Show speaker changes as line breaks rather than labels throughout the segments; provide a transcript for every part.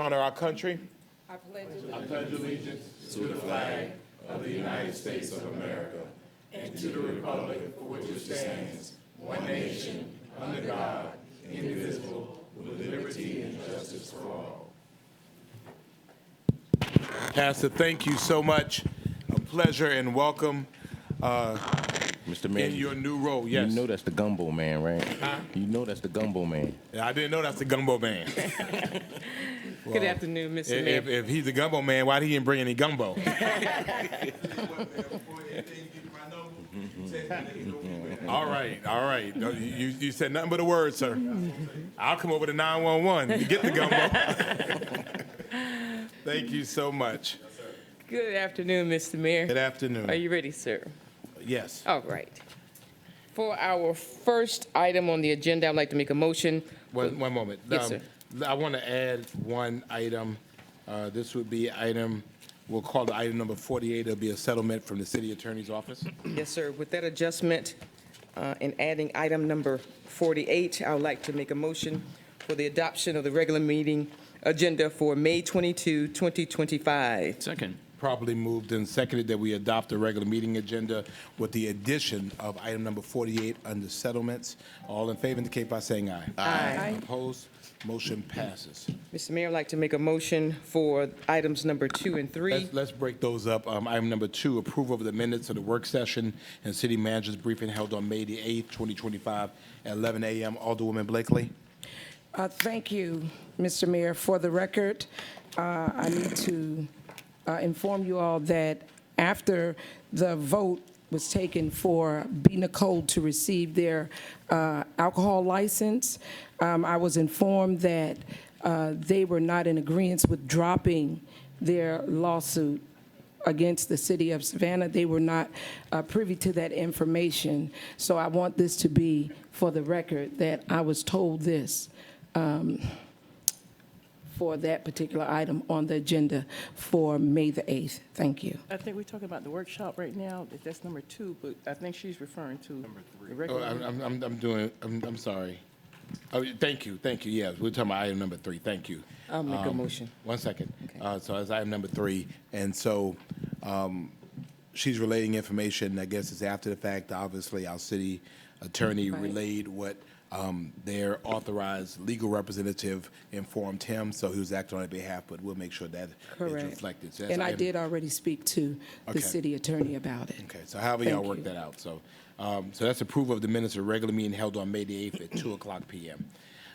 honor our country
I pledge allegiance
Pastor, thank you so much. A pleasure and welcome
Mr.
in
Mayor,
your new role.
you
Yes.
know that's the gumbo man, right? You know that's the gumbo man.
I didn't know that's the gumbo man.
Good afternoon, Mr.
If, if-
Mayor.
if he's the gumbo man, why he didn't bring any gumbo? All right, all right. No, You, you- you said nothing but a word, sir. I'll come over to 911 to get the gumbo. Thank you so much.
Good afternoon, Mr. Mayor.
Good
Are
afternoon.
you ready, sir?
Yes.
All right. For our first item on the agenda, I'd like to make a motion.
One, one moment.
Yes,
Um, I want to add one item. Uh, This would be item, we'll call it item number 48. It'll be a settlement from the city attorney's office.
Yes, sir. With that adjustment uh, and adding item number 48, I would like to make a motion for the adoption of the regular meeting agenda for May 22, 2025.
Second.
Properly moved and seconded that we adopt the regular meeting agenda with the addition of item number 48 under settlements. All in favor indicate by saying aye.
Aye.
Opposed? Motion passes.
Mr. Mayor, I'd like to make a motion for items number two and three.
Let's, let's break those up. Um, Item number two, approval of the minutes of the work session and city manager's briefing held on May the 8th, 2025, at 11 a.m. Alderwoman Blakely.
Uh, Thank you, Mr. Mayor. For the record, uh, I need to uh, inform you all that after the vote was taken for B. Nicole to receive their uh, alcohol license, um, I was informed that uh, they were not in agreement with dropping their lawsuit against the city of Savannah. They were not uh, privy to that information. So I want this to be for the record that I was told this um, for that particular item on the agenda for May the 8th. Thank you.
I think we're talking about the workshop right now, that- that's number two, but I think she's referring to. Number three.
Oh, I'm, I'm- I'm, I'm doing, I'm, I'm sorry. Oh, thank you, thank you, yes, we're talking about item number three, thank you.
I'll make a
Um,
motion.
One second. Uh, so that's item number three, and so, um, she's relating information, I guess it's after the fact, obviously, our city attorney relayed what, um, their authorized legal representative informed him, so he was acting on their behalf, but we'll make sure that is
Correct.
reflected. So that's
And I
item-
did already speak to
Okay.
the city attorney about it.
Okay, so however y'all
Thank
work
you.
that out, so, um, so that's approval of the minutes of regular meeting held on May the 8th at 2 o'clock PM.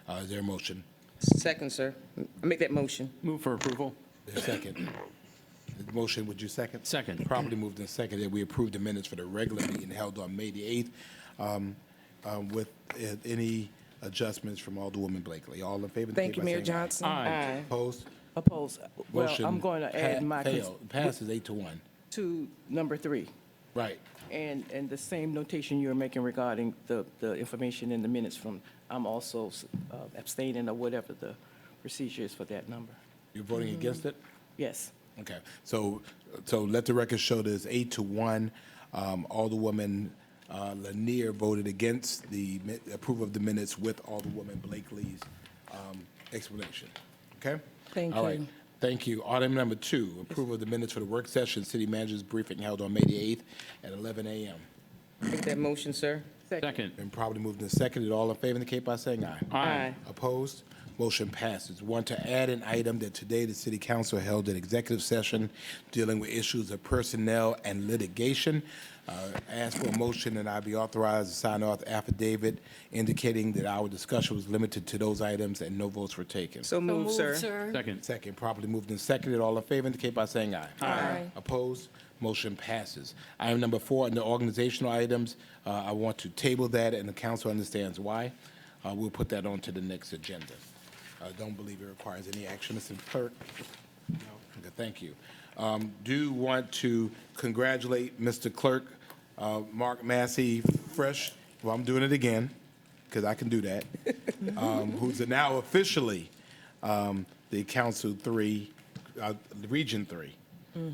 Uh, is there a motion?
Second, sir. I Make that motion.
Move for approval.
There's a second. The Motion, would you second?
Second.
Properly moved and seconded. that we approve the minutes for the regular meeting held on May the 8th, um, um, with uh, any adjudgments from Alderwoman Blakely. All in favor? indicate
Thank you,
by
Mayor
saying aye.
Johnson.
Aye.
Opposed?
Oppose, well, I'm
Motion
going to
pa-
add my, cons-
failed. Passes eight to one.
to number three,
Right.
and, and the same notation you were making regarding the, the information in the minutes from, I'm also uh, abstaining or whatever the procedure is for that number.
You're voting against it?
Yes,
Okay, so, so let the record show there's eight to one. Um, Alderwoman uh, Lanier voted against the mi- approval of the minutes with Alderwoman Blakely's um, explanation, okay?
Thank
All right.
you.
Thank you. Item number two, approval of the minutes for the work session, city manager's briefing held on May the 8th at 11 a.m.
Make that motion, sir.
Second.
Been properly moved and seconded. All in favor indicate by saying aye.
Aye.
Opposed? Motion passes. One, to add an item that today the city council held an executive session dealing with issues of personnel and litigation. Uh, Ask for a motion and I be authorized to sign off affidavit indicating that our discussion was limited to those items and no votes were taken.
So moved, sir.
Second.
Second, properly moved and seconded. All in favor indicate by saying aye. Aye. Opposed? Motion passes. Item number four, under organizational items, uh, I want to table that, and the council understands why. Uh, We'll put that on to the next agenda. I don't believe it requires any action, Mr. Clerk. No. Okay, Thank you. Um, Do want to congratulate Mr. Clerk, uh, Mark Massey, fresh, well, I'm doing it again, because I can do that, um, who's now officially um, the Council Three, uh, Region Three,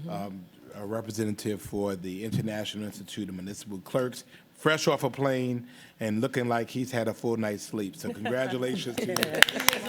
um, a representative for the International Institute of Municipal Clerks, fresh off a plane and looking like he's had a full night's sleep. So congratulations to you.